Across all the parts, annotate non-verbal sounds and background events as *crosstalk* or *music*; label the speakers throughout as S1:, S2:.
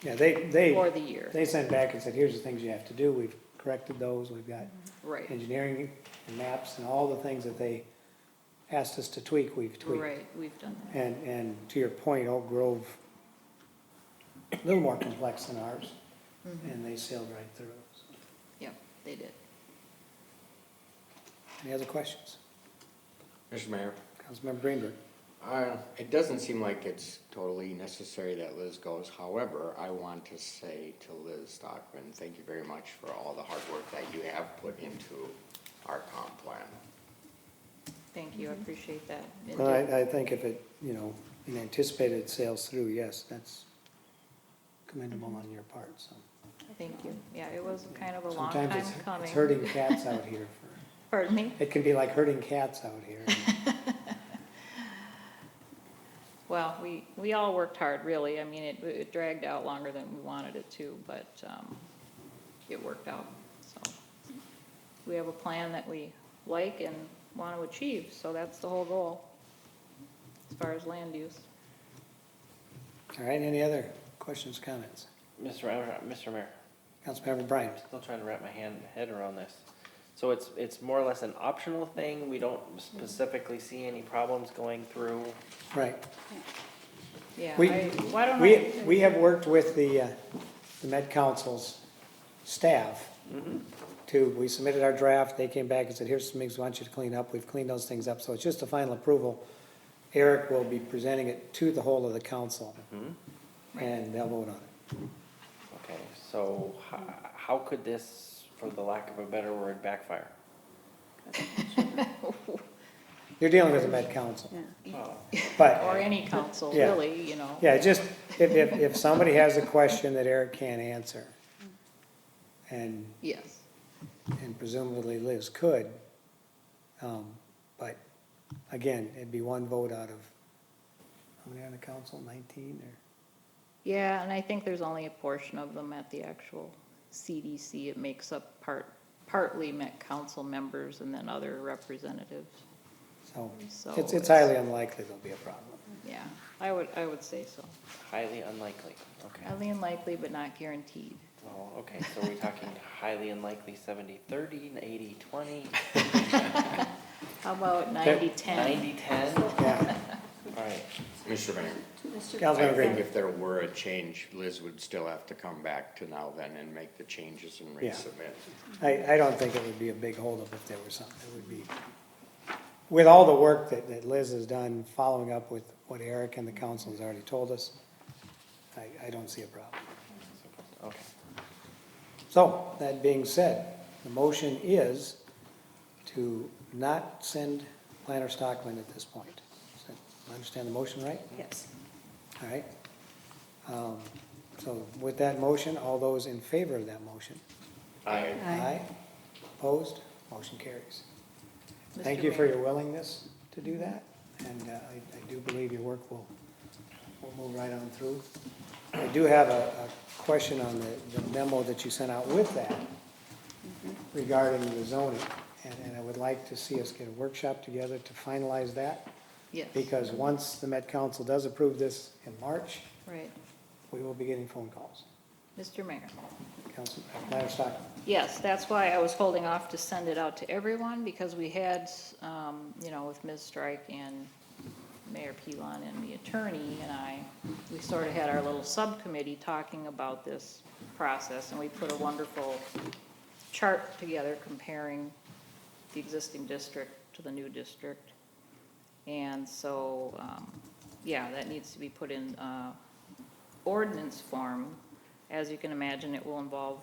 S1: Yeah, they, they,
S2: for the year,
S1: they sent back and said, here's the things you have to do. We've corrected those. We've got
S2: right,
S1: engineering and maps and all the things that they asked us to tweak, we've tweaked.
S2: right, we've done that.
S1: And, and to your point, Oak Grove, a little more complex than ours,
S2: Mhm.
S1: and they sailed right through. So,
S2: Yep, they did.
S1: Any other questions?
S3: Mr. Mayor,
S1: Councilmember Greenberg?
S3: uh, it doesn't seem like it's totally necessary that Liz goes. However, I want to say to Liz Stockman, thank you very much for all the hard work that you have put into our comp plan.
S2: Thank you, I
S1: Mm-hmm.
S2: appreciate that. It
S1: Well,
S2: did.
S1: I, I think if it, you know, in anticipated sales through, yes, that's commendable on your part, so.
S2: Thank you. Yeah, it was kind of a long time
S1: Sometimes it's-
S2: coming.
S1: It's hurting cats out here. for-
S2: Pardon me?
S1: It can be like hurting cats out here. *laughs*
S2: Well, we, we all worked hard, really. I mean, it, it dragged out longer than we wanted it to, but, um, it worked out, so. We have a plan that we like and want to achieve, so that's the whole goal, as far as land use.
S1: All right, any other questions, comments?
S4: Mr. Mayor, Mr. Mayor,
S1: Councilmember Bryant?
S4: I'm still trying to wrap my hand, head around this. So it's, it's more or less an optional thing, we don't specifically see any problems going through.
S1: Right.
S2: Yeah,
S1: We-
S2: I, why don't
S1: We,
S2: I,
S1: we have worked with the, uh, the Med Council's staff to, we submitted our draft, they came back and said, here's some things we want you to clean up, we've cleaned those things up, so it's just a final approval. Eric will be presenting it to the whole of the council, and they'll vote on it.
S4: Okay, so how, how could this, for the lack of a better word, backfire?
S1: You're dealing with the Med Council,
S4: Well,
S2: or
S1: but,
S2: any council,
S1: Yeah.
S2: really, you know?
S1: yeah, just, if, if, if somebody has a question that Eric can't answer, and
S2: Yes,
S1: and presumably Liz could. Um, But again, it'd be one vote out of, how many on the council, nineteen or?
S2: yeah, and I think there's only a portion of them at the actual CDC. It makes up part, partly Met council members and then other representatives. So
S1: So it's, it's
S2: it's-
S1: highly unlikely there'll be a problem.
S2: Yeah, I would, I would say so.
S4: highly unlikely, okay.
S2: Highly unlikely, but not guaranteed.
S4: Well, okay, so we're talking highly unlikely seventy, thirty, eighty, twenty,
S2: How about ninety-ten?
S4: ninety, ten?
S1: *laughs* Yeah,
S4: Alright,
S3: Mr. Mayor, I
S1: Councilmember
S3: think
S1: Greenberg.
S3: if there were a change, Liz would still have to come back to now then and make the changes and
S1: Yeah.
S3: resubmit.
S1: I, I don't think it would be a big holdup if there were something, it would be, with all the work that, that Liz has done, following up with what Eric and the council has already told us, I, I don't see a problem.
S4: okay.
S1: So, that being said, the motion is to not send Planner Stockman at this point. Is that- I understand the motion, right?
S5: Yes.
S1: All right. Um, So with that motion, all those in favor of that motion?
S3: I,
S1: Opposed? Motion carries.
S2: Mr.
S1: Thank you for
S2: Mayor.
S1: your willingness to do that, and uh, I I do believe your work will, will move right on through. I do have a a question on the the memo that you sent out with that regarding the zoning, and and I would like to see us get a workshop together to finalize that,
S2: Yes,
S1: because once the Met Council does approve this in March,
S2: right.
S1: we will be getting phone calls.
S2: Mr. Mayor.
S1: Council, Mayor Stockman?
S2: Yes, that's why I was holding off to send it out to everyone, because we had, um, you know, with Ms. Strike and Mayor Pilon and the attorney and I, we sort of had our little subcommittee talking about this process, and we put a wonderful chart together comparing the existing district to the new district. And so, um, yeah, that needs to be put in, uh, ordinance form. As you can imagine, it will involve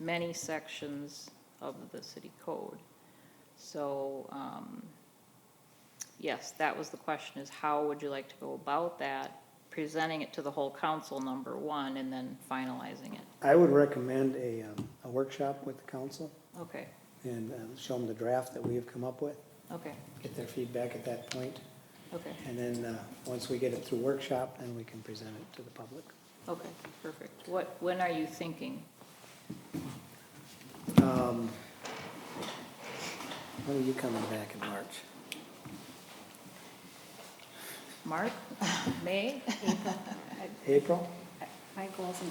S2: many sections of the city code. So, um, yes, that was the question, is how would you like to go about that? Presenting it to the whole council, number one, and then finalizing it.
S1: I would recommend a, um, a workshop with the council
S2: Okay,
S1: and uh, show them the draft that we have come up with,
S2: okay,
S1: get their feedback at that point,
S2: okay,
S1: And then, uh, once we get it through workshop, then we can present it to the public.
S2: okay, perfect. What, when are you thinking?
S1: Um, When are you coming back in March?
S2: March, May?
S1: April?
S5: My goals and